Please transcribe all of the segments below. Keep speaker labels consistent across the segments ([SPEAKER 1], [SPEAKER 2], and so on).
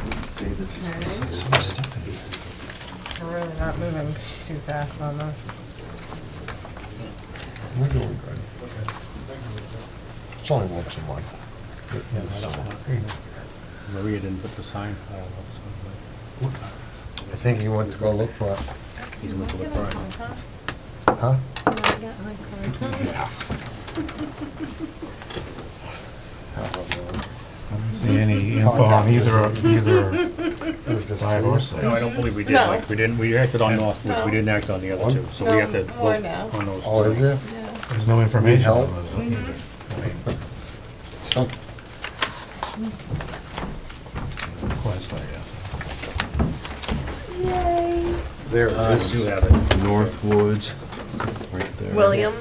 [SPEAKER 1] this
[SPEAKER 2] All
[SPEAKER 1] is.
[SPEAKER 2] right.
[SPEAKER 3] So much stuff in here.
[SPEAKER 2] We're really not moving too fast on this.
[SPEAKER 3] We're doing good. It's only once a month. It is, so.
[SPEAKER 4] Maria didn't put the sign pile up, so
[SPEAKER 3] I think he went to go look for it,
[SPEAKER 4] he's gonna put it right.
[SPEAKER 3] huh?
[SPEAKER 2] Yeah.
[SPEAKER 5] See any info on either, either
[SPEAKER 3] It was just
[SPEAKER 5] side or side?
[SPEAKER 4] No, I don't believe we did,
[SPEAKER 2] No.
[SPEAKER 4] like, we didn't, we acted on Northwoods, we didn't act on the other two, so we have to
[SPEAKER 2] No, more
[SPEAKER 4] vote
[SPEAKER 2] now.
[SPEAKER 4] on those two.
[SPEAKER 3] Oh, is it?
[SPEAKER 5] There's no information on
[SPEAKER 3] help?
[SPEAKER 5] those. I mean,
[SPEAKER 3] Some,
[SPEAKER 5] Request, I guess.
[SPEAKER 3] there
[SPEAKER 4] Uh,
[SPEAKER 3] it
[SPEAKER 4] we do
[SPEAKER 3] is.
[SPEAKER 4] have it,
[SPEAKER 1] Northwoods, right there.
[SPEAKER 2] William,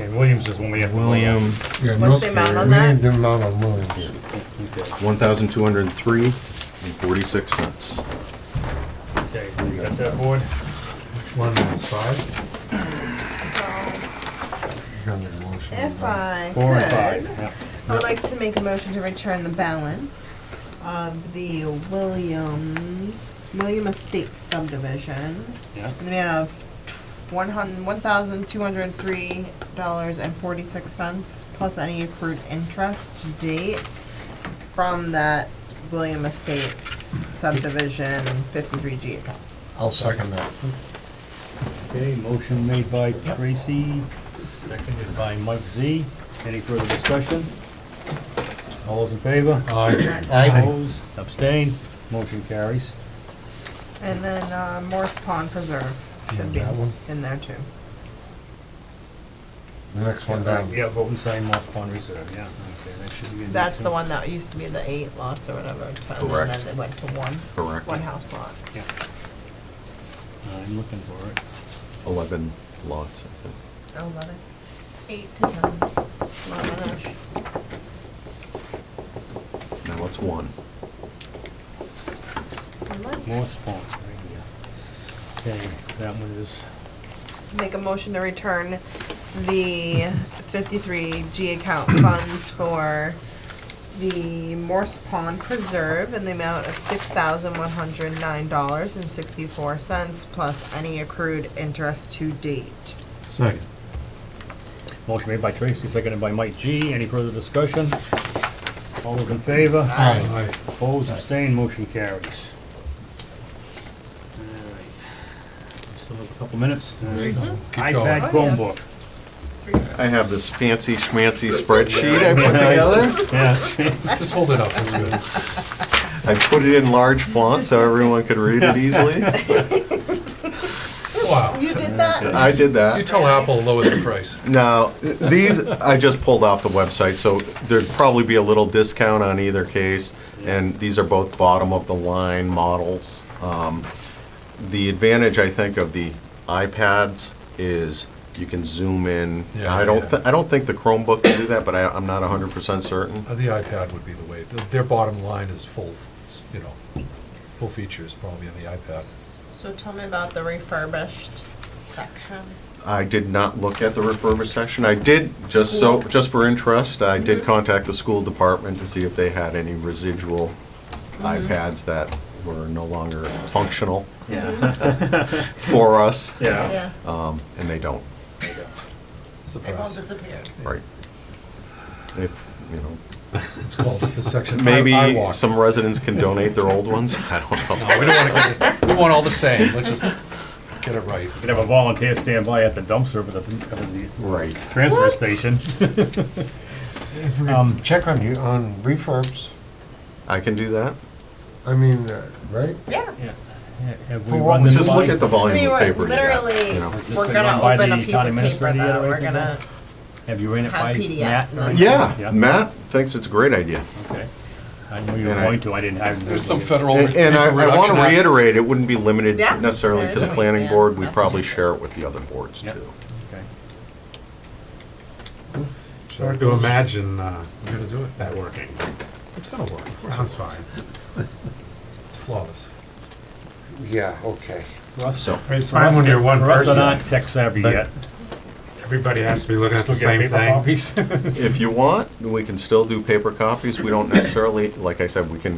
[SPEAKER 4] and Williams is when we have to. vote on.
[SPEAKER 1] William,
[SPEAKER 3] Yeah,
[SPEAKER 2] What's the
[SPEAKER 3] no-
[SPEAKER 2] amount on
[SPEAKER 3] we
[SPEAKER 2] that?
[SPEAKER 3] need the amount on Williams.
[SPEAKER 4] Okay,
[SPEAKER 1] one thousand two hundred and three and forty-six cents.
[SPEAKER 4] Okay, so you got that board?
[SPEAKER 5] Which one, is five?
[SPEAKER 3] You're gonna need a motion on
[SPEAKER 2] if uh,
[SPEAKER 3] that.
[SPEAKER 2] I
[SPEAKER 4] Four and
[SPEAKER 2] could,
[SPEAKER 4] five, yeah.
[SPEAKER 2] I would like to make a motion to return the balance of the Williams, William Estate subdivision
[SPEAKER 4] Yeah,
[SPEAKER 2] in the amount of one hun, one thousand two hundred three dollars and forty-six cents plus any accrued interest to date from that William Estates subdivision fifty-three G account.
[SPEAKER 3] I'll second that.
[SPEAKER 4] okay, motion made by Tracy, seconded by Mike Z. Any further discussion? All those in favor? Aye.
[SPEAKER 3] Aye.
[SPEAKER 4] Opposed, abstained, motion carries.
[SPEAKER 2] And then uh, Morse Pond Preserve should be
[SPEAKER 3] That one?
[SPEAKER 2] in there too.
[SPEAKER 3] The next one down.
[SPEAKER 4] Yeah, vote and sign Moss Pond Reserve, yeah, okay, that should be in there
[SPEAKER 2] That's
[SPEAKER 4] too.
[SPEAKER 2] the one that used to be the eight lots or whatever, and
[SPEAKER 1] Correct.
[SPEAKER 2] then it went to one,
[SPEAKER 1] Correct.
[SPEAKER 2] one house lot.
[SPEAKER 4] Yeah. Uh, I'm looking for it.
[SPEAKER 1] Eleven lots, I think.
[SPEAKER 2] Oh, about it. Eight to ten. Oh
[SPEAKER 1] Now it's one.
[SPEAKER 2] my gosh.
[SPEAKER 4] Moss Pond, right here. Okay, that one is,
[SPEAKER 2] Make a motion to return the fifty-three G account funds for the Morse Pond Preserve in the amount of six thousand one hundred nine dollars and sixty-four cents plus any accrued interest to date.
[SPEAKER 5] Second.
[SPEAKER 4] motion made by Tracy, seconded by Mike G. Any further discussion? All those in favor?
[SPEAKER 3] Aye.
[SPEAKER 4] Opposed, abstained, motion carries. Alright. Still have a couple minutes. iPad
[SPEAKER 2] going. Oh, yeah.
[SPEAKER 4] Chromebook.
[SPEAKER 1] I have this fancy schmancy spreadsheet I put together.
[SPEAKER 4] Yes.
[SPEAKER 3] Just hold it up, it's good.
[SPEAKER 1] I put it in large font so everyone could read it easily.
[SPEAKER 3] Wow.
[SPEAKER 2] You did that?
[SPEAKER 1] I did that.
[SPEAKER 3] tell Apple lower the price.
[SPEAKER 1] Now, these, I just pulled off the website, so there'd probably be a little discount on either case, and these are both bottom-of-the-line models. Um, The advantage, I think, of the iPads is you can zoom in.
[SPEAKER 6] Yeah,
[SPEAKER 1] I don't,
[SPEAKER 6] yeah.
[SPEAKER 1] thi- I don't think the Chromebook can do that, but I, I'm not hundred percent certain.
[SPEAKER 6] Uh, The iPad would be the way, th- their bottom line is full, s- you know, full features probably on the iPad.
[SPEAKER 2] So tell me about the refurbished section.
[SPEAKER 1] I did not look at the refurbished session. I did, just so, just for interest, I did
[SPEAKER 2] Mm-hmm.
[SPEAKER 1] contact the school department to see if they had any residual
[SPEAKER 2] Mm-hmm.
[SPEAKER 1] iPads that were no longer functional
[SPEAKER 4] Yeah.
[SPEAKER 1] for us,
[SPEAKER 4] Yeah.
[SPEAKER 1] um, and they don't,
[SPEAKER 6] Surprise.
[SPEAKER 2] disappear.
[SPEAKER 1] right? If, you know,
[SPEAKER 6] It's called the section. I- I
[SPEAKER 1] maybe
[SPEAKER 6] walk.
[SPEAKER 1] some residents can donate their old ones, I don't know.
[SPEAKER 6] No, we don't want to get, it- we want all the same, let's just get it right.
[SPEAKER 4] You can have a volunteer stand by at the dumpster, but at the, at the
[SPEAKER 1] Right.
[SPEAKER 4] transfer station. Um,
[SPEAKER 3] Check on you, on refurbs,
[SPEAKER 1] I can do that.
[SPEAKER 3] I mean, uh, right?
[SPEAKER 2] Yeah.
[SPEAKER 4] Yeah. Have we
[SPEAKER 3] Well,
[SPEAKER 4] run this
[SPEAKER 1] Just
[SPEAKER 4] by-
[SPEAKER 1] look at the
[SPEAKER 2] I mean,
[SPEAKER 1] volume of
[SPEAKER 2] we're
[SPEAKER 1] paper. you got,
[SPEAKER 2] literally,
[SPEAKER 1] you know.
[SPEAKER 4] Has this
[SPEAKER 2] we're
[SPEAKER 4] been
[SPEAKER 2] gonna
[SPEAKER 4] run by
[SPEAKER 2] open
[SPEAKER 4] the
[SPEAKER 2] a piece
[SPEAKER 4] county
[SPEAKER 2] of paper
[SPEAKER 4] administrator yet
[SPEAKER 2] that
[SPEAKER 4] or
[SPEAKER 2] we're
[SPEAKER 4] anything?
[SPEAKER 2] gonna,
[SPEAKER 4] Have you ran it
[SPEAKER 2] have
[SPEAKER 4] by
[SPEAKER 2] PDFs
[SPEAKER 4] Matt?
[SPEAKER 2] and
[SPEAKER 4] or
[SPEAKER 2] then-
[SPEAKER 4] anything?
[SPEAKER 1] Yeah, Matt thinks it's a great idea.
[SPEAKER 4] Okay. I knew you were
[SPEAKER 1] And I-
[SPEAKER 4] going to, I didn't have.
[SPEAKER 6] There's some federal.
[SPEAKER 1] And and I, I
[SPEAKER 6] reduction
[SPEAKER 1] wanna
[SPEAKER 6] act.
[SPEAKER 1] reiterate, it wouldn't be limited
[SPEAKER 2] Yeah.
[SPEAKER 1] necessarily
[SPEAKER 2] There
[SPEAKER 1] to the
[SPEAKER 2] is a
[SPEAKER 1] planning
[SPEAKER 2] waistband.
[SPEAKER 1] board, we
[SPEAKER 2] That's
[SPEAKER 1] probably
[SPEAKER 2] a good
[SPEAKER 1] share it
[SPEAKER 2] choice.
[SPEAKER 1] with the other boards
[SPEAKER 4] Yep.
[SPEAKER 1] too.
[SPEAKER 4] Okay.
[SPEAKER 5] It's hard to imagine uh,
[SPEAKER 6] We're gonna do it,
[SPEAKER 5] that working.
[SPEAKER 6] it's gonna work, Of course
[SPEAKER 5] Sounds fine.
[SPEAKER 6] it's- it's flawless.
[SPEAKER 3] Yeah, okay.
[SPEAKER 1] So,
[SPEAKER 5] It's fine when you're one
[SPEAKER 4] For us, are
[SPEAKER 5] person.
[SPEAKER 4] not tech savvy
[SPEAKER 5] But-
[SPEAKER 4] yet.
[SPEAKER 5] Everybody has to be looking at the
[SPEAKER 4] Still get
[SPEAKER 5] same
[SPEAKER 4] paper
[SPEAKER 5] thing.
[SPEAKER 4] copies?
[SPEAKER 1] if you want, we can still do paper copies, we don't necessarily, like I said, we can